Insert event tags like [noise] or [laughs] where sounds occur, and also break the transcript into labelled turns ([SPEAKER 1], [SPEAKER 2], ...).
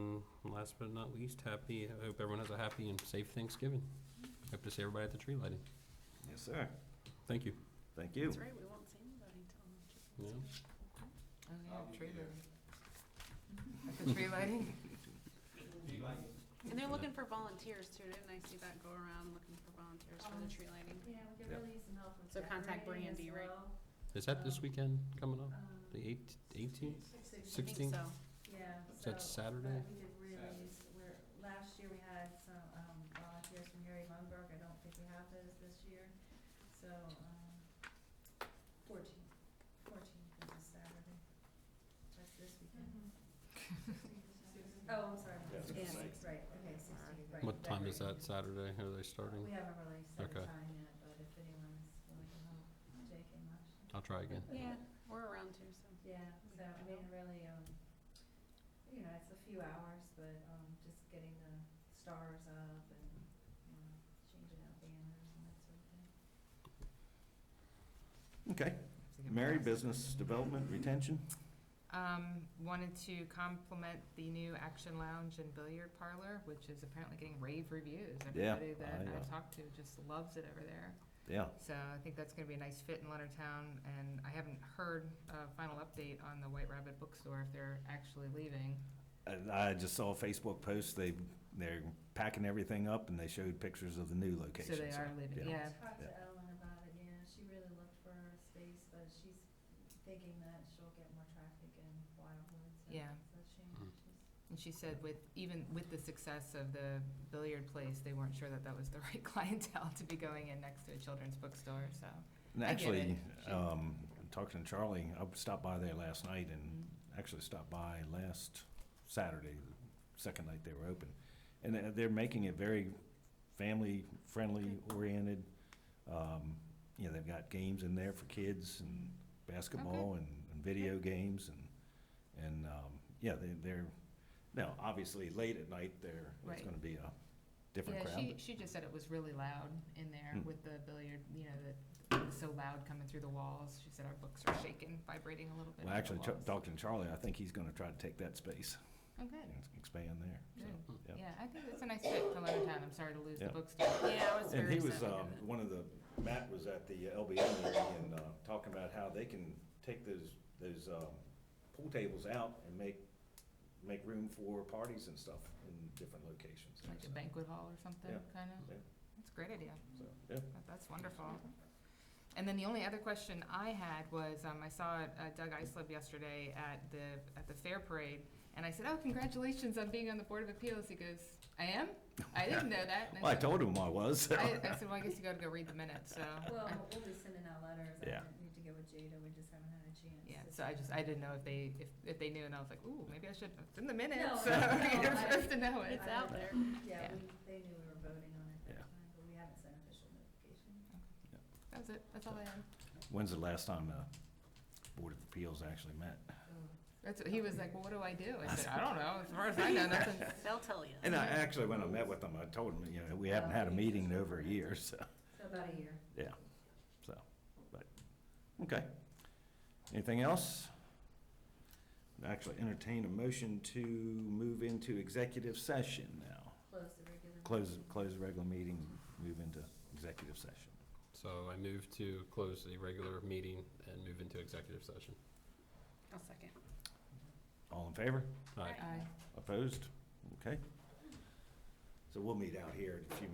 [SPEAKER 1] Mm, last but not least, happy, I hope everyone has a happy and safe Thanksgiving. Hope to see everybody at the tree lighting.
[SPEAKER 2] Yes, sir.
[SPEAKER 1] Thank you.
[SPEAKER 2] Thank you.
[SPEAKER 3] That's right, we won't see anybody till.
[SPEAKER 1] Yeah.
[SPEAKER 4] Oh, yeah, tree
[SPEAKER 3] [laughs]
[SPEAKER 4] lighting. At the tree lighting?
[SPEAKER 3] And they're looking for volunteers too, didn't I see that go around, looking for volunteers for
[SPEAKER 5] Um,
[SPEAKER 3] the tree lighting?
[SPEAKER 5] Yeah, we could
[SPEAKER 2] Yeah.
[SPEAKER 5] really use some help with
[SPEAKER 3] So contact
[SPEAKER 5] decorating as
[SPEAKER 3] Brandy, right?
[SPEAKER 5] well.
[SPEAKER 1] Is that this weekend coming up?
[SPEAKER 5] Um,
[SPEAKER 1] The eight- 18th?
[SPEAKER 3] I think
[SPEAKER 1] 16th?
[SPEAKER 3] so.
[SPEAKER 5] Yeah,
[SPEAKER 1] Is
[SPEAKER 5] so.
[SPEAKER 1] that Saturday?
[SPEAKER 5] but We could really use, we're, last year we had some, um, volunteers from Harry Lundberg, I don't think we have those this year, so, um, fourteen, fourteen is a Saturday. That's this weekend.
[SPEAKER 3] Mm-hmm.
[SPEAKER 5] Oh, I'm sorry,
[SPEAKER 2] Yeah,
[SPEAKER 5] sixteen,
[SPEAKER 3] it's
[SPEAKER 5] right, okay, sixteen, right.
[SPEAKER 1] What time is that Saturday?
[SPEAKER 5] decorating.
[SPEAKER 1] Are they starting?
[SPEAKER 5] We haven't really set a
[SPEAKER 1] Okay.
[SPEAKER 5] time yet, but if anyone's willing to help, Jake and Marcia.
[SPEAKER 1] I'll try again.
[SPEAKER 3] Yeah, we're around too, so.
[SPEAKER 5] Yeah, so I mean, really, um, you know, it's a few hours, but, um, just getting the stars up and, you know, changing out banners and that sort of thing.
[SPEAKER 2] Okay. Mary, business development, retention?
[SPEAKER 4] Um, wanted to compliment the new Action Lounge and Billiard Parlor, which is apparently getting rave reviews.
[SPEAKER 2] Yeah,
[SPEAKER 4] Everybody that
[SPEAKER 2] I, uh,
[SPEAKER 4] I've talked to just loves it over there.
[SPEAKER 2] Yeah.
[SPEAKER 4] So I think that's gonna be a nice fit in Leonardtown, and I haven't heard a final update on the White Rabbit Bookstore if they're actually leaving.
[SPEAKER 2] And I just saw a Facebook post, they, they're packing everything up and they showed pictures of the new
[SPEAKER 4] So
[SPEAKER 2] location.
[SPEAKER 4] they are leaving, yeah.
[SPEAKER 5] Talked to Ellen about it, yeah, she really looked for her space, but she's thinking that she'll get more traffic in Wildwood, so
[SPEAKER 4] Yeah.
[SPEAKER 5] it's a shame.
[SPEAKER 1] Mhm.
[SPEAKER 5] She's-
[SPEAKER 4] And she said with, even with the success of the billiard place, they weren't sure that that was the [laughs] right clientele to be going in next to a children's bookstore, so.
[SPEAKER 2] And
[SPEAKER 4] I get
[SPEAKER 2] actually,
[SPEAKER 4] it. She-
[SPEAKER 2] um, talking to Charlie, I stopped by there last night
[SPEAKER 4] Mm-hmm.
[SPEAKER 2] and actually stopped by last Saturday, the second night they were open. And uh, they're- they're making it very family-friendly oriented. Um, You know, they've got games in there for kids and basketball and and video games and, and, um, yeah, they- they're, now, obviously, late at night, there, it's
[SPEAKER 4] Right.
[SPEAKER 2] gonna be a different crowd.
[SPEAKER 4] Yeah, she, she just said it was really loud in there
[SPEAKER 2] Hmm.
[SPEAKER 4] with the billiard, you know, that, it was so loud coming through the walls. She said our books are shaking, vibrating a little bit. off
[SPEAKER 2] Well,
[SPEAKER 4] the
[SPEAKER 2] actually, Char-
[SPEAKER 4] walls.
[SPEAKER 2] Dr. Charlie, I think he's gonna try to take that space
[SPEAKER 4] Oh, good,
[SPEAKER 2] and expand there, so.
[SPEAKER 4] good.
[SPEAKER 2] yeah.
[SPEAKER 4] Yeah, I think it's a nice fit to Leonardtown. I'm sorry to lose the
[SPEAKER 2] Yeah.
[SPEAKER 4] bookstore.
[SPEAKER 3] Yeah, I was
[SPEAKER 2] And he
[SPEAKER 3] very
[SPEAKER 2] was,
[SPEAKER 3] sad.
[SPEAKER 2] um, one of the, Matt was at the LBA meeting and, uh, talking about how they can take those, those, um, pool tables out and make, make room for parties and stuff in different locations. and
[SPEAKER 4] Like a
[SPEAKER 2] stuff.
[SPEAKER 4] banquet hall or something,
[SPEAKER 2] uh, Yeah.
[SPEAKER 4] kind
[SPEAKER 2] Yeah.
[SPEAKER 4] of. That's a great idea.
[SPEAKER 2] So, yeah,
[SPEAKER 4] That- That's wonderful. And then the only other question I had was, um, I saw uh, Doug Islip yesterday at the, at the fair parade, and I said, oh, congratulations on being on the Board of Appeals. He goes, I am? I didn't know that. And
[SPEAKER 2] well, I
[SPEAKER 4] said,
[SPEAKER 2] told him I was, [laughs] so.
[SPEAKER 4] I, I said, well, I guess you gotta go read the minutes, so.
[SPEAKER 5] [laughs] Well,
[SPEAKER 4] I-
[SPEAKER 5] we'll be sending out letters, I
[SPEAKER 2] Yeah.
[SPEAKER 5] need to get with Jada, we just haven't had a chance.
[SPEAKER 4] Yeah,
[SPEAKER 5] to
[SPEAKER 4] so I just, I didn't know if they, if, if they knew, and I was like, ooh, maybe I should, it's in the minutes,
[SPEAKER 5] No,
[SPEAKER 4] so [laughs]
[SPEAKER 5] no,
[SPEAKER 4] you're
[SPEAKER 5] I-
[SPEAKER 4] supposed to know it.
[SPEAKER 3] It's out there.
[SPEAKER 4] Yeah.
[SPEAKER 5] Yeah, we, they knew we were voting on it
[SPEAKER 2] Yeah.
[SPEAKER 5] that time, but we haven't sent official notification.
[SPEAKER 4] That's it, that's all I had.
[SPEAKER 2] When's the last time the Board of Appeals actually met?
[SPEAKER 4] That's, what- he was like, well, what do I do? I said, I don't know, as far as I know,
[SPEAKER 5] [laughs]
[SPEAKER 4] nothing.
[SPEAKER 3] They'll tell you.
[SPEAKER 2] And I, actually, when I met with them, I told them, you know, we haven't had a meeting in over a year, so.
[SPEAKER 5] So about a year.
[SPEAKER 2] Yeah, so, but, okay. Anything else? Actually entertain a motion to move into executive session now.
[SPEAKER 5] Close the regular.
[SPEAKER 2] Close, close the regular meeting, move into executive session.
[SPEAKER 1] So I move to close the regular meeting and move into executive session.
[SPEAKER 3] I'll second.
[SPEAKER 2] All in favor?
[SPEAKER 1] Aye.
[SPEAKER 4] I-
[SPEAKER 2] Opposed? Okay. So we'll meet out here in a few minutes.